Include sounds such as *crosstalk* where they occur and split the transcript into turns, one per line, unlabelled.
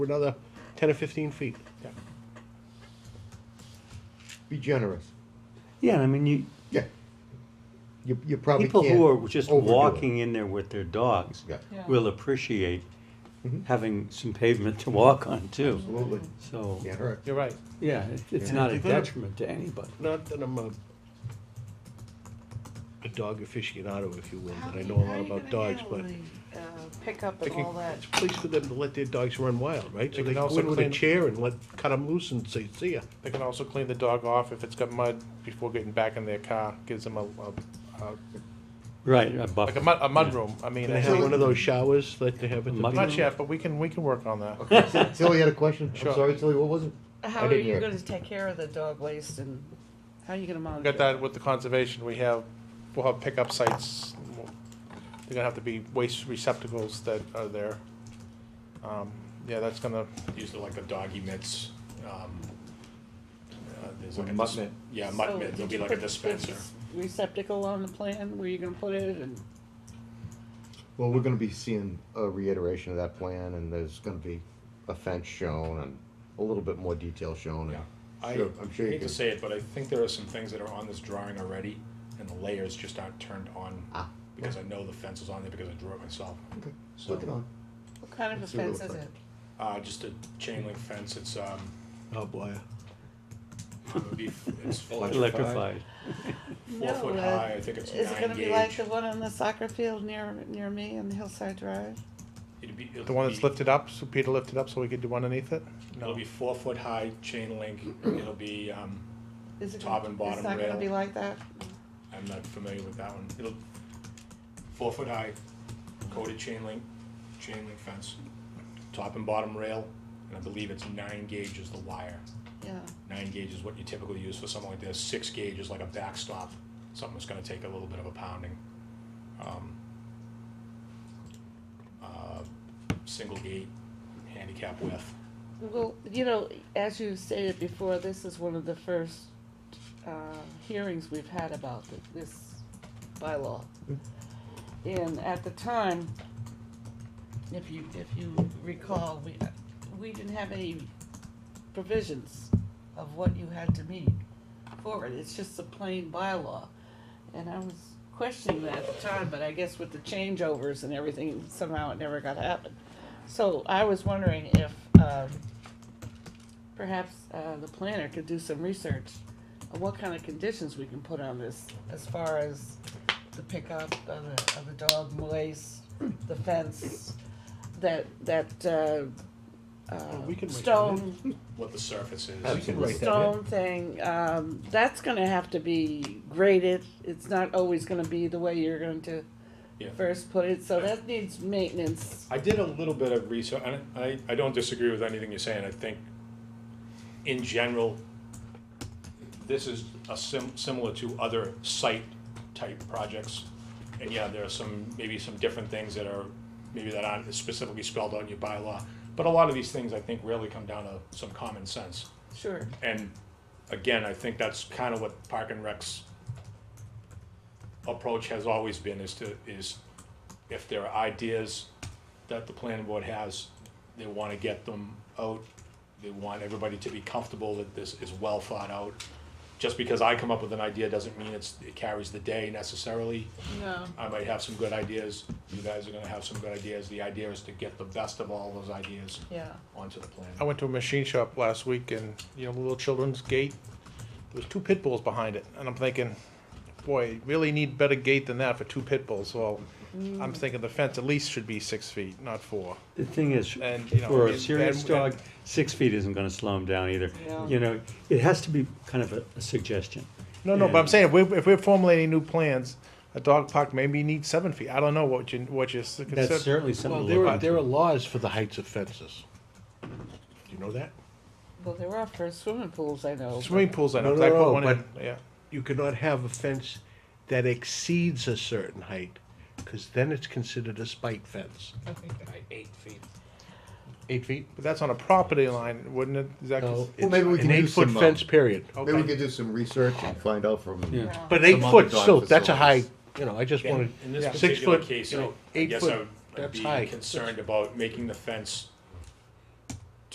for another ten or fifteen feet.
Be generous.
Yeah, I mean, you,
Yeah. You, you probably
people
can't
who are just
overdo it.
walking in there with their dogs
Yeah,
Yeah.
will appreciate having some pavement to walk on too.
Mm-hmm. absolutely.
So,
Can't hurt.
You're right.
yeah, it- it's
Yeah.
not a
They're gonna-
detriment to anybody.
Not that I'm a a dog aficionado, if you will,
How
but I
do-
know a
how
lot
are you
about
gonna
dogs,
handle
but.
the, uh, Pickup and
thinking
all that.
It's a place for them to let their dogs run wild, right? So they
They can
can go
also
in with a
clean-
chair and let, cut them loose and say, see ya.
They can also clean the dog off if it's got mud before getting back in their car. Gives them a, a, a
Right, a
like a
buffer.
mud, a mud room. I mean,
Can they
I
have
think-
one of those showers that they have at the
Mud-
not
beach?
yet, but we can we can work on that.
Okay, Till- Tilly had a question. I'm
Sure.
sorry, Tilly, what was it? I
How are
didn't
you
hear.
gonna take care of the dog waste and how are you gonna
We
monitor?
got that with the conservation. We have we'll have pickup sites. They're gonna have to be waste receptacles that are there. Um, yeah, that's gonna
usually like the dog emits. Um, uh, there's like a
Mutt
dis-
mitt.
Yeah,
So,
mutt mitt.
did
There'll be
you
like a
put this
dispenser.
Receptacle on the plan where you're gonna put it and,
Well, we're gonna be seeing a reiteration of that plan, and there's gonna be a fence shown and a little bit more detail shown. and-
I,
Sure, I'm sure you
hate
can.
to say it, but I think there are some things that are on this drawing already, and the layers just aren't turned on
Ah.
because I know the fence was on there because I drew it myself.
Okay,
So,
look it on.
what kind of a
Let's see what it
fence
looks
is
like.
it?
Uh, just a chain link fence. It's um,
Oh, boy.
it would be,
*laughs*
it's
Electrified.
four
No,
foot
uh,
high. I think it's
Is
nine
it gonna
gauge.
be like the one on the soccer field near, near me on the Hillside Drive?
It'd be- it'll
the one that's
be-
lifted up. So Peter lifted up so we could do underneath it.
It'll be four foot high chain link. It'll be um,
Is it?
Top
gonna-
and bottom
It's not gonna
rail.
be like that?
I'm not familiar with that one. It'll, four foot high, coated chain link, chain link fence, top and bottom rail, and I believe it's nine gauge is the wire.
Yeah,
Nine gauge is what you typically use for something like this, six gauge is like a backstop, something that's gonna take a little bit of a pounding. Um, uh, Single gate, handicap width,
well, you know, as you stated before, this is one of the first, uh, hearings we've had about th- this bylaw. And at the time, if you, if you recall, we, we didn't have any provisions of what you had to meet for it, it's just a plain bylaw. And I was questioning that at the time, but I guess with the changeovers and everything, somehow it never got happened. So I was wondering if, um, perhaps, uh, the planner could do some research on what kind of conditions we can put on this as far as the pickup of the, of the dog waste, the fence, that, that, uh,
Well, Oh, we
uh,
can make
stone
what the surface is.
Absolutely.
the
Right, that-
stone thing, um, that's gonna have to be graded, it's not always gonna be the way you're going to
Yeah.
first put it, so that needs maintenance.
I did a little bit of research, and I, I don't disagree with anything you're saying. I think, in general, this is a sim- similar to other site-type projects. And yeah, there are some, maybe some different things that are, maybe that aren't specifically spelled out in your bylaw. But a lot of these things, I think, really come down to some common sense.
Sure.
And again, I think that's kind of what Park and Rec's approach has always been, is to, is if there are ideas that the planning board has, they wanna get them out. They want everybody to be comfortable that this is well thought out. Just because I come up with an idea doesn't mean it's, it carries the day necessarily.
No.
I might have some good ideas, you guys are gonna have some good ideas. The idea is to get the best of all those ideas
Yeah,
onto the plan.
I went to a machine shop last week and, you know, the little children's gate, there was two pit bulls behind it, and I'm thinking, boy, you really need better gate than that for two pit bulls, well,
Mm.
I'm thinking the fence at least should be six feet, not four.
The thing is,
And, you know,
for
and-
a serious
and-
dog, six feet isn't gonna slow him down either.
Yeah.
You know, it has to be kind of a- a suggestion.
No, no, but I'm
Yeah.
saying, if we're, if we're formulating new plans, a dog park maybe needs seven feet, I don't know what you, what you
That's
consider.
certainly something
Well,
to
there
look
are,
into.
there are laws for the heights of fences. Do you know that?
well, there are for swimming pools, I know. but-
Swimming pools, I know,
No,
'cause I
no, no,
put one in, yeah.
You cannot have a fence that exceeds a certain height, because then it's considered a spike fence.
I think eight feet.
Eight feet?
But that's on a property line, wouldn't it? Is that
No,
cons-
it's
maybe we
an
can do
eight-foot
some, uh,
fence, period.
Maybe we
Okay.
could do some research and find out from.
Yeah.
Yeah.
But
Some
eight
other
foot
dog
still, that's a high,
facilities.
you know, I just wanted,
In this
six
particular
foot,
case,
you
I
know,
I
eight
guess I
foot,
would- I'd
that's
be
high.
concerned about making the fence